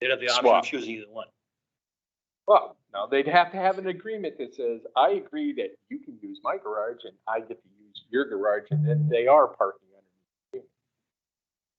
They'd have the option Swap. of choosing either one. Well, no, they'd have to have an agreement that says, I agree that you can use my garage and I get to use your garage and then they are parking underneath.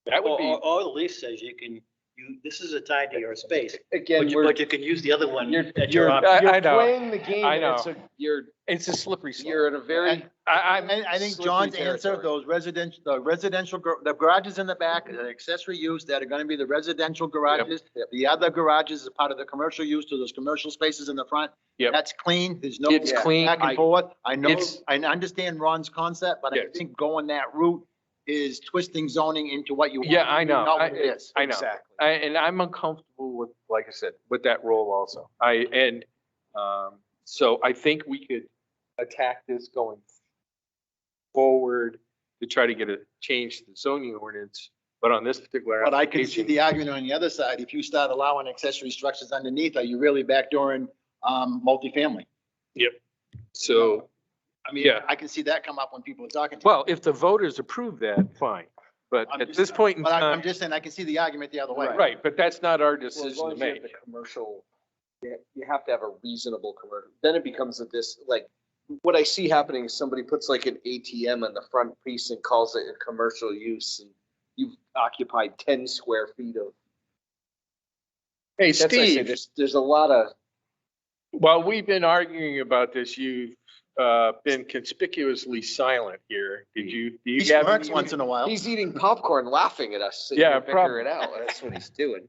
the agreement. That would Or, be, uh, or- or the lease says you can, you, this is a tie to your space, again, but you, we're, but you can use the other one You're- at you're- your option. you're I know. playing the game. I know. It's a, you're, It's a slippery slope. you're in a very. I, I'm. I, I think slippery John's answer, territory. those residential, the residential, gar- the garages in the back, the accessory use that are gonna be the residential garages. The other garages is part of the commercial use to those commercial spaces in the front. Yep. That's clean. There's no It's back clean. I- and forth. I know, it's- I understand Ron's concept, but I Yes. think going that route is twisting zoning into what you. want. Yeah, I know. Not I- what it is. I know. Exactly. I, and I'm uncomfortable with, like I said, with that role also. I, and, um, so I think we could attack this going forward to try to get a change to the zoning ordinance, but on this particular. But I can see the application, argument on the other side. If you start allowing accessory structures underneath, are you really backdooring, um, multifamily? So, I mean, Yeah. I can see that come up when people are talking. to well, if the voters approve that, fine, but I'm at just- this point in But I- I'm time, just saying, I can see the argument the other way. right, but that's not our Well, as decision long to as you have make. the Commercial, you you have to have a reasonable commercial, then it becomes a this, like, what I see happening is somebody puts like an ATM on the front piece and calls it a commercial use. and You've occupied ten square feet of. Hey, That's why I say Steve, There's, there's a lot of, while we've been arguing about this, you've, uh, been conspicuously silent here. Did you, do He you have? smirks any- once in a while. he's eating popcorn, laughing at us. so Yeah, you Figure it out. That's what he's doing.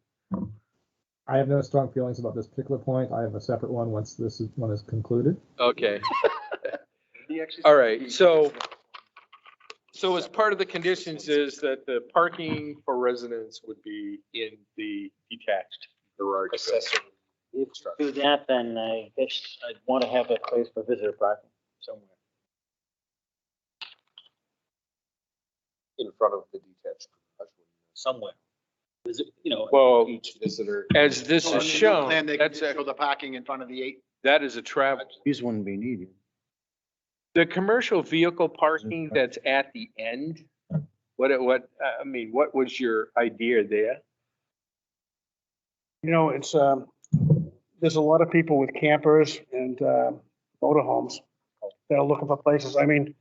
I have no strong feelings about this particular point. I have a separate one once this is- one is concluded. Okay. All right, so- So as part of the conditions is that the parking for residents would be in the detached garage. building. Accessory Do infrastructure. that, then I guess I'd want to have a place for visitor parking somewhere. in front of the detached. garage. somewhere. Is it, you know, Well, Each visitor. as this So on is the new shown, plan, they can that's, just a- Show the parking in front of the eight. that is a travel. These wouldn't be needed. The commercial vehicle parking that's at the end, what, it- what, I- I mean, what was your idea there? You know, it's, um, there's a lot of people with campers and, uh, motorhomes that are looking for places. I mean,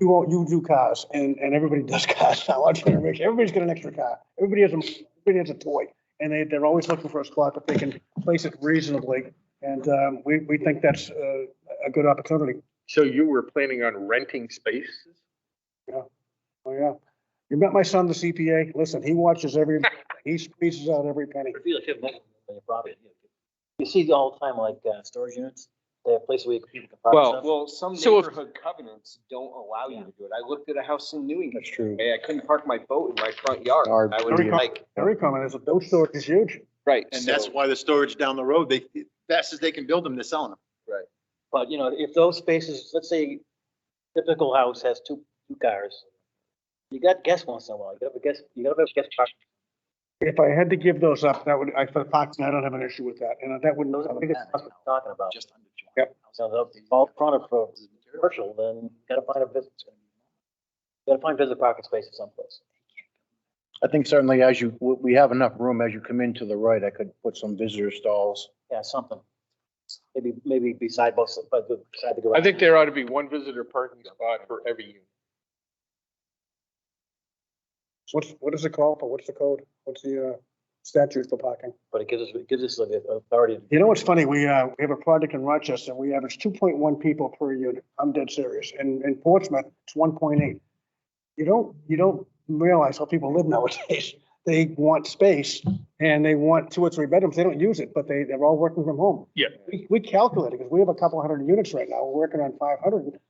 you all, you do cars and, and everybody does cars now. Our generation, everybody's got an extra car. Everybody has a, everybody has a toy. And they, they're always looking for a spot that they can place it reasonably. And, um, we, we think that's, uh, a good opportunity. So you were planning on renting spaces? Oh, yeah. You met my son, the CPA. Listen, he watches every, he squeezes out every penny. I feel like you have multiple on your property. You see all the time, like, uh, storage units, they have places where people can Well, park stuff. Well, some So if- neighborhood covenants don't allow you to do it. I looked at a house in New England. That's true. Hey, I couldn't park my boat in my front yard. Or- I was Very com- like, Every comment is, those stores is huge. right. And that's so- why the storage down the road, they, fast as they can build them, they're selling them. But, you know, if those spaces, let's say typical house has two, two cars, you got guests once in a while, you gotta have a guest, you gotta have a guest parking. If I had to give those up, that would, I, for parking, I don't have an issue with that, and that wouldn't. Those are the biggest that, costs we're talking about. Just under. Yep. So the all front of pro- commercial, then you gotta find a business. You gotta find visitor parking spaces someplace. I think certainly as you, we we have enough room as you come into the right, I could put some visitor stalls. Yeah, something. Maybe, maybe beside both, but beside the garage. I think there ought to be one visitor parking spot for every unit. What's, what is it called, for? what's the code, what's the, uh, statute for parking? But it gives us, it gives us the authority to You know what's funny, we, uh, we have a project in Rochester, we average two point one people per unit, I'm dead serious, and in Portsmouth, it's one point eight. You don't, you don't realize how people live nowadays, they want space, and they want two or three bedrooms, they don't use it, but they, they're all working from home. Yeah. We, we calculate it, because we have a couple hundred units right now, we're working on five hundred,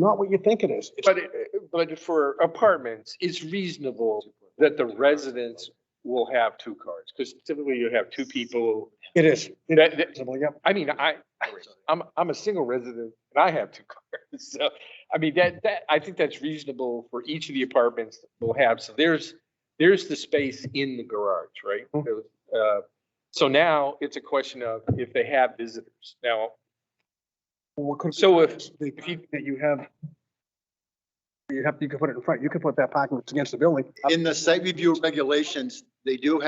not what you think it is. It's- But, it- but for apartments, it's reasonable that the residents will have two cars, because typically you have two people. It is. It That- is. that- Well, Yep. I mean, I, I'm, I'm a single resident and I have two cars, so, I mean, that, that, I think that's reasonable for each of the apartments that we'll have, so there's, there's the space in the garage, right? Uh, So now it's a question of if they have visitors. Now, What could be So if- is the if you- parking That you have. You have, you can put it in front, you can put that parking that's against the building. In the site review regulations, they do have